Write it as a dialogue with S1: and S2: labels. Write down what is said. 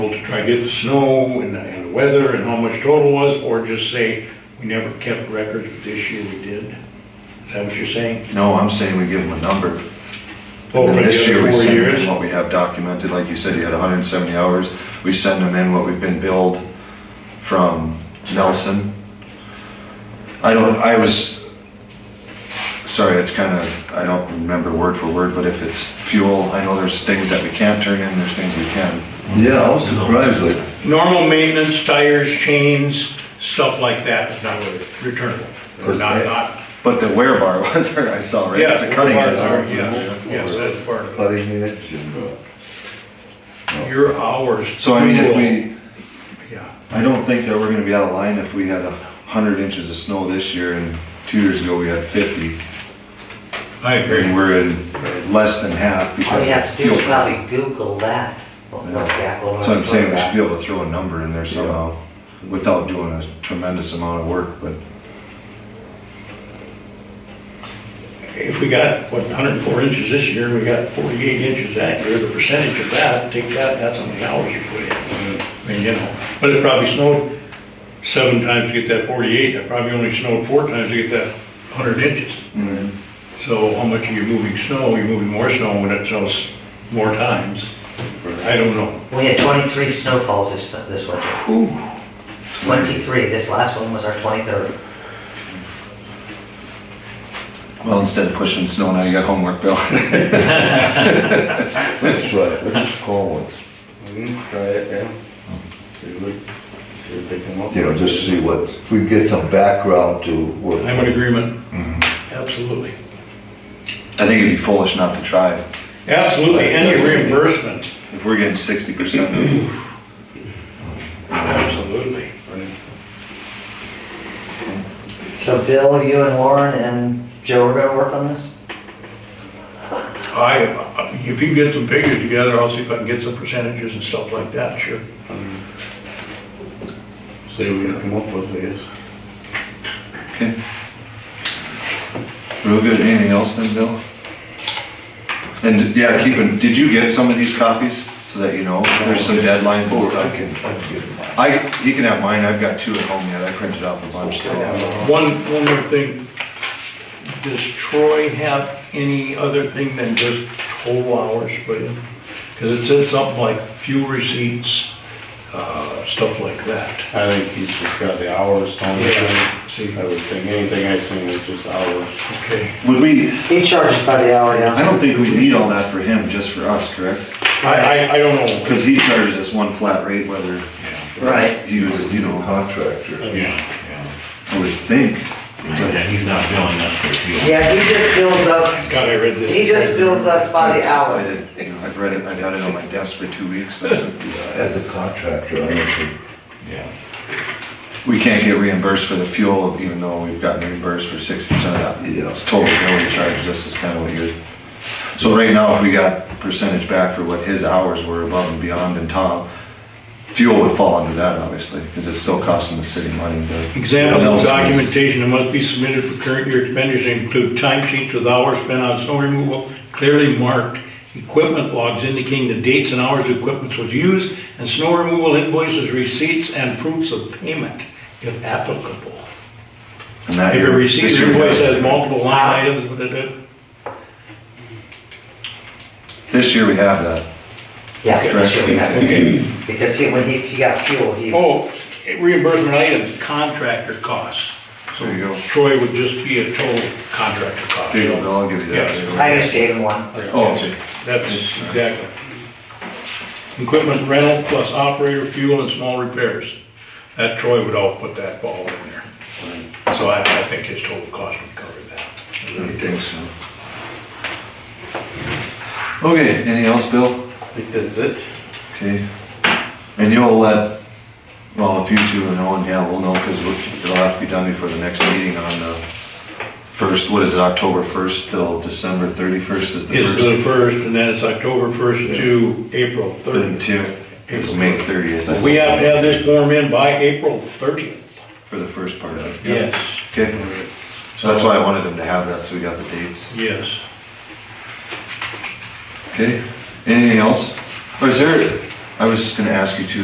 S1: I get the snow and the, and the weather and how much total was, or just say, we never kept records, but this year we did? Is that what you're saying?
S2: No, I'm saying we give them a number.
S1: Oh, for
S2: And then
S1: the
S2: this year,
S1: other
S2: we
S1: four
S2: send them
S1: years?
S2: in what we have documented, like you said, you had hundred and seventy hours. We send them in what we've been billed from Nelson. I don't, I was, sorry, it's kind of, I don't remember word for word, but if it's fuel, I know there's things that we can't turn in, there's things we can.
S3: Yeah, I was surprised, like,
S1: Normal maintenance, tires, chains, stuff like that is not really returnable. Or not, not,
S2: But the wear bar was, I saw, right?
S1: yeah.
S2: The cutting edge.
S1: Yeah, yes, that's part of
S3: cutting edge and, uh,
S1: it. Your hours.
S2: So I mean, if we,
S1: Yeah.
S2: I don't think that we're gonna be out of line if we had a hundred inches of snow this year and two years ago we had fifty.
S1: I
S2: And
S1: agree.
S2: we're in less than half
S4: All
S2: because
S4: you have
S2: of
S4: to do
S2: fuel
S4: is
S2: prices.
S4: probably Google that. What- what that- what-
S2: So I'm saying we
S4: what-
S2: should be able to throw a number in there somehow without doing a tremendous amount of work, but
S1: If we got, what, 104 inches this year, and we got 48 inches that year, the percentage of that, take that, that's how many hours you put in. I mean, you know, but it probably snowed seven times to get that 48, it probably only snowed four times to get that 100 inches. So how much are you moving snow? You're moving more snow when it snows more times. I don't know.
S4: We had twenty-three snowfalls this, this winter. Twenty-three, this last one was our twenty-third.
S2: well, instead of pushing snow, now you got homework, Bill.
S3: let's try it, let's just call once,
S5: Mhm, Try it, yeah. See what, see what they come up with.
S3: you know, just see what, if we get some background to what.
S1: I'm in agreement.
S3: Mm-hmm.
S1: Absolutely.
S2: I think it'd be foolish not to try.
S1: Absolutely, any reimbursement.
S2: If we're getting sixty percent,
S1: Absolutely.
S4: So Bill, you and Lauren and Joe are gonna work on this?
S1: I, if you can get some figures together, I'll see if I can get some percentages and stuff like that, sure.
S5: See what we can come up with, I guess.
S2: okay. Real good, anything else then, Bill? And yeah, keep in, did you get some of these copies so that you know, there's some deadlines and
S3: Oh, I
S2: stuff?
S3: can, I can get mine.
S2: I, you can have mine, I've got two at home yet, I printed off a bunch, so.
S1: One, one more thing. Does Troy have any other thing than just total hours put in? Because it said something like fuel receipts, uh, stuff like that.
S5: I think he's just got the hours, Tom. I
S1: See,
S5: would think, anything I seen was just hours.
S1: okay.
S2: Would we,
S4: He charges by the hour now.
S2: I don't think we need all that for him, just for us, correct?
S1: I, I, I don't know.
S2: Because he charges us one flat rate, whether
S4: Right.
S2: he was,
S3: Because,
S2: you
S3: you know,
S2: know,
S3: contractor,
S6: Yeah, yeah.
S2: I would think.
S6: Yeah, he's not billing us for fuel.
S4: Yeah, he just bills us,
S1: God, I read this.
S4: he just bills us by the
S2: That's- I
S4: hour.
S2: didn't, you know, I've read it, I've had it on my desk for two weeks, that's,
S3: as a contractor, I don't think,
S6: Yeah.
S2: we can't get reimbursed for the fuel, even though we've gotten reimbursed for sixty percent of that. You know, it's total bill he charged us is kind of what you're, so right now, if we got percentage back for what his hours were above and beyond and top, fuel would fall under that, obviously, because it's still costing the city money, but.
S1: Example
S2: What
S1: of
S2: else is-
S1: documentation that must be submitted for current year expenditures include timesheets with hours spent on snow removal clearly marked, equipment logs indicating the dates and hours the equipment was used, and snow removal invoices, receipts, and proofs of payment if applicable.
S2: And that
S1: If a
S2: year-
S1: receipt
S2: this
S1: or
S2: year we
S1: invoice
S2: had-
S1: has multiple line items, what it is.
S2: This year we have that.
S4: Yeah, for sure, we have
S1: Okay.
S4: to, because he, when he, he got fuel, he,
S1: Oh, reimbursement items, contractor costs. So
S2: There you go.
S1: Troy would just be a total contractor cost.
S2: There you go, Bill, I'll give you that.
S4: I just gave him one.
S2: Oh, okay.
S1: That's exactly. Equipment rental plus operator fuel and small repairs. That Troy would all put that ball in there. So I, I think his total cost would cover that.
S2: I think so. Okay, anything else, Bill?
S5: I think that's it.
S2: Okay. And you'll let, well, if you two and Owen, yeah, we'll know, because it'll have to be done before the next meeting on the first, what is it, October first till December thirty-first is the
S1: It's
S2: first.
S1: the first, and then it's October first to April thirtieth.
S2: Thirty-two, it's May thirtieth.
S1: We have to have this form in by April thirtieth.
S2: For the first part of it.
S1: Yes,
S2: Okay, so that's why I wanted them to have that, so we got the dates.
S1: yes.
S2: Okay, anything else? Or is there, Oh, I was gonna ask you too,